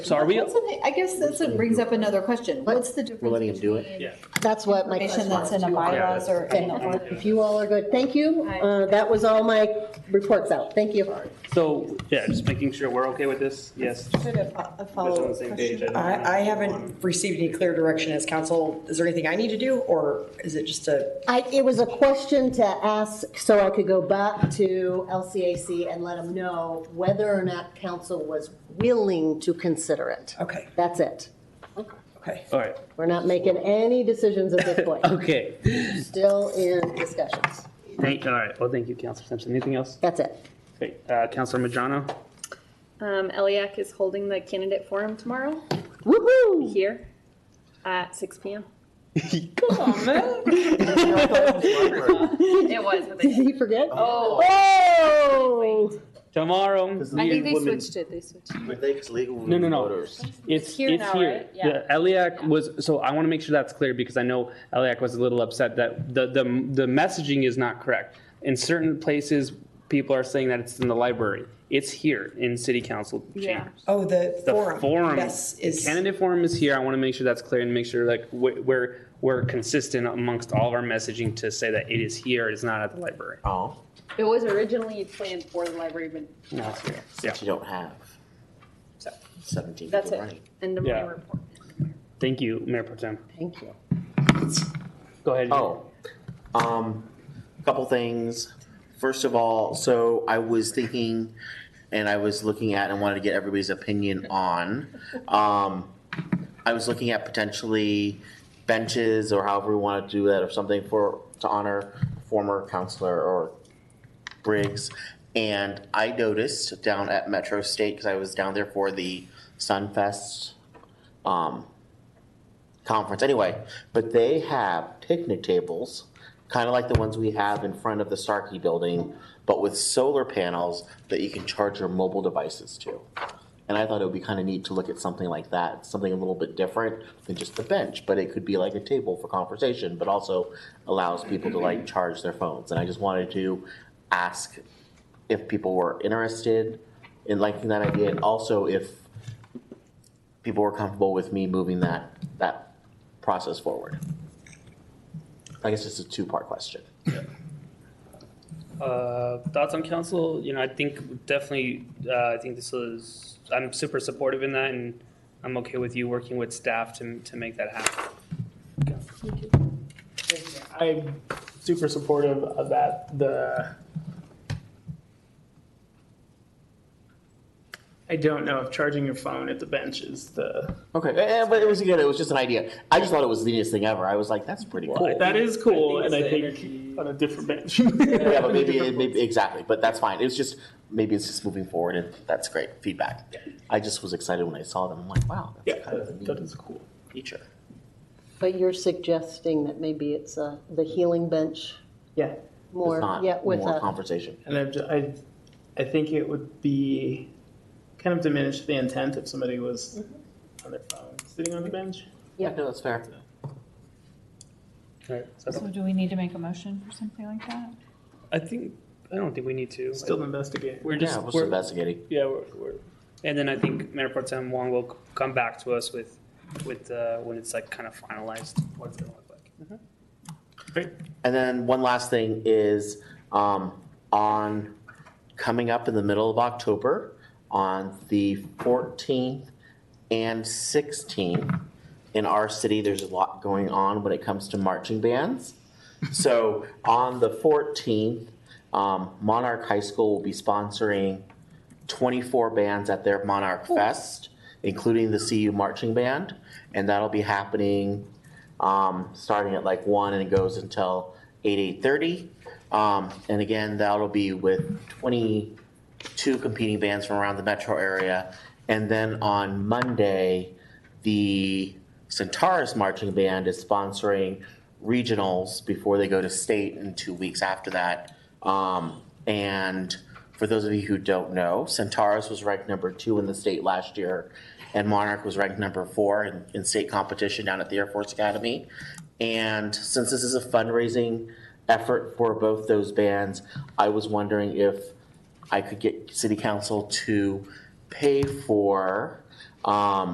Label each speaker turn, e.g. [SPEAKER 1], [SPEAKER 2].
[SPEAKER 1] So are we,
[SPEAKER 2] That's an- I guess that's what brings up another question. What's the difference?
[SPEAKER 3] We're letting him do it?
[SPEAKER 2] between
[SPEAKER 1] Yeah.
[SPEAKER 4] That's what my
[SPEAKER 2] Information
[SPEAKER 4] question
[SPEAKER 2] that's in
[SPEAKER 4] was.
[SPEAKER 2] the bylaws or in the
[SPEAKER 4] Okay,
[SPEAKER 2] ordinance.
[SPEAKER 4] If you all are good, thank you. Uh, That was all my reports out. Thank you.
[SPEAKER 1] so, yeah, just making sure we're okay with this, yes, just
[SPEAKER 2] Sort of a- a
[SPEAKER 1] on the
[SPEAKER 2] follow-up
[SPEAKER 1] same page.
[SPEAKER 2] question.
[SPEAKER 5] I, I haven't received any clear direction as council. Is there anything I need to do, or is it just a,
[SPEAKER 4] I, it was a question to ask so I could go back to LCAC and let them know whether or not council was willing to consider it.
[SPEAKER 5] okay,
[SPEAKER 4] That's it.
[SPEAKER 5] okay.
[SPEAKER 1] All right,
[SPEAKER 4] We're not making any decisions at this point.
[SPEAKER 1] okay.
[SPEAKER 4] Still in discussions.
[SPEAKER 1] Thank, all right, well, thank you, Counselor Simpson. Anything else?
[SPEAKER 4] That's it.
[SPEAKER 1] Great. Uh, Counselor Majano?
[SPEAKER 6] Um, Eliac is holding the candidate forum tomorrow
[SPEAKER 4] Woo-hoo!
[SPEAKER 6] here at six PM. It was, but
[SPEAKER 4] Did he forget?
[SPEAKER 6] Oh.
[SPEAKER 4] Oh!
[SPEAKER 1] Tomorrow.
[SPEAKER 6] I think they switched it, they switched. it.
[SPEAKER 1] No, no, no. It's,
[SPEAKER 6] It's here
[SPEAKER 1] it's
[SPEAKER 6] now,
[SPEAKER 1] here.
[SPEAKER 6] right? Yeah.
[SPEAKER 1] The Eliac was, so I want to make sure that's clear because I know Eliac was a little upset that the, the, the messaging is not correct. In certain places, people are saying that it's in the library. It's here in city council
[SPEAKER 6] Yeah.
[SPEAKER 1] chambers.
[SPEAKER 5] Oh, the
[SPEAKER 1] The
[SPEAKER 5] forum.
[SPEAKER 1] forum,
[SPEAKER 5] Yes, is,
[SPEAKER 1] candidate forum is here. I want to make sure that's clear and make sure like wh- we're, we're consistent amongst all of our messaging to say that it is here, it's not at the library.
[SPEAKER 3] Oh,
[SPEAKER 6] It was originally planned for the library, but
[SPEAKER 1] No, it's here. Yeah.
[SPEAKER 3] you don't have
[SPEAKER 6] So,
[SPEAKER 3] seventeen people
[SPEAKER 6] that's
[SPEAKER 3] running.
[SPEAKER 6] it. End of my
[SPEAKER 1] Yeah.
[SPEAKER 6] report.
[SPEAKER 1] Thank you, Mayor Protem.
[SPEAKER 4] Thank you.
[SPEAKER 1] Go ahead.
[SPEAKER 3] Oh, um, couple things. First of all, so I was thinking, and I was looking at and wanted to get everybody's opinion on, um, I was looking at potentially benches or however we want to do that or something for, to honor former counselor or Briggs. And I noticed down at Metro State, because I was down there for the Sunfest, um, conference anyway, but they have picnic tables, kind of like the ones we have in front of the Starkey building, but with solar panels that you can charge your mobile devices to. And I thought it would be kind of neat to look at something like that, something a little bit different than just a bench, but it could be like a table for conversation, but also allows people to like charge their phones. And I just wanted to ask if people were interested in liking that idea, and also if people were comfortable with me moving that, that process forward. I guess it's a two-part question.
[SPEAKER 1] Uh, thoughts on council? You know, I think definitely, uh, I think this is, I'm super supportive in that and I'm okay with you working with staff to, to make that happen.
[SPEAKER 7] I'm super supportive of that. The I don't know if charging your phone at the bench is the
[SPEAKER 3] Okay. eh, eh, but it was, again, it was just an idea. I just thought it was the neatest thing ever. I was like, that's pretty cool.
[SPEAKER 7] that is cool,
[SPEAKER 1] I think
[SPEAKER 7] and I
[SPEAKER 1] it's the
[SPEAKER 7] think on a different bench.
[SPEAKER 3] Yeah, but maybe, it- maybe, exactly, but that's fine. It was just, maybe it's just moving forward and that's great feedback. I just was excited when I saw them. I'm like, wow,
[SPEAKER 7] yeah,
[SPEAKER 3] that's kind of a
[SPEAKER 7] that
[SPEAKER 3] neat
[SPEAKER 7] is cool.
[SPEAKER 3] feature.
[SPEAKER 4] But you're suggesting that maybe it's uh, the healing bench
[SPEAKER 7] Yeah,
[SPEAKER 3] It's
[SPEAKER 4] more,
[SPEAKER 3] not
[SPEAKER 4] yeah, with
[SPEAKER 3] more
[SPEAKER 4] a,
[SPEAKER 3] conversation.
[SPEAKER 7] and I, ju- I, I think it would be kind of diminish the intent if somebody was on their phone sitting on the bench.
[SPEAKER 4] Yeah.
[SPEAKER 3] No, that's fair.
[SPEAKER 1] All right,
[SPEAKER 2] So
[SPEAKER 1] so
[SPEAKER 2] do we need to make a motion for something like that?
[SPEAKER 1] I think, I don't think we need to.
[SPEAKER 7] Still investigate.
[SPEAKER 1] We're
[SPEAKER 3] Yeah,
[SPEAKER 1] just,
[SPEAKER 3] we're still
[SPEAKER 1] we're,
[SPEAKER 3] investigating.
[SPEAKER 1] yeah, we're, we're, and then I think Mayor Protem Wong will c- come back to us with, with, uh, when it's like kind of finalized, what it's gonna look like.
[SPEAKER 3] And then one last thing is, um, on, coming up in the middle of October, on the fourteenth and sixteenth, in our city, there's a lot going on when it comes to marching bands. So on the fourteenth, um, Monarch High School will be sponsoring twenty-four bands at their Monarch Fest, including the CU Marching Band, and that'll be happening um, starting at like one and it goes until eight, eight thirty. Um, and again, that'll be with twenty-two competing bands from around the metro area. And then on Monday, the Centaurus Marching Band is sponsoring regionals before they go to state in two weeks after that. Um, and for those of you who don't know, Centaurus was ranked number two in the state last year, and Monarch was ranked number four in, in state competition down at the Air Force Academy. And since this is a fundraising effort for both those bands, I was wondering if I could get city council to pay for Um,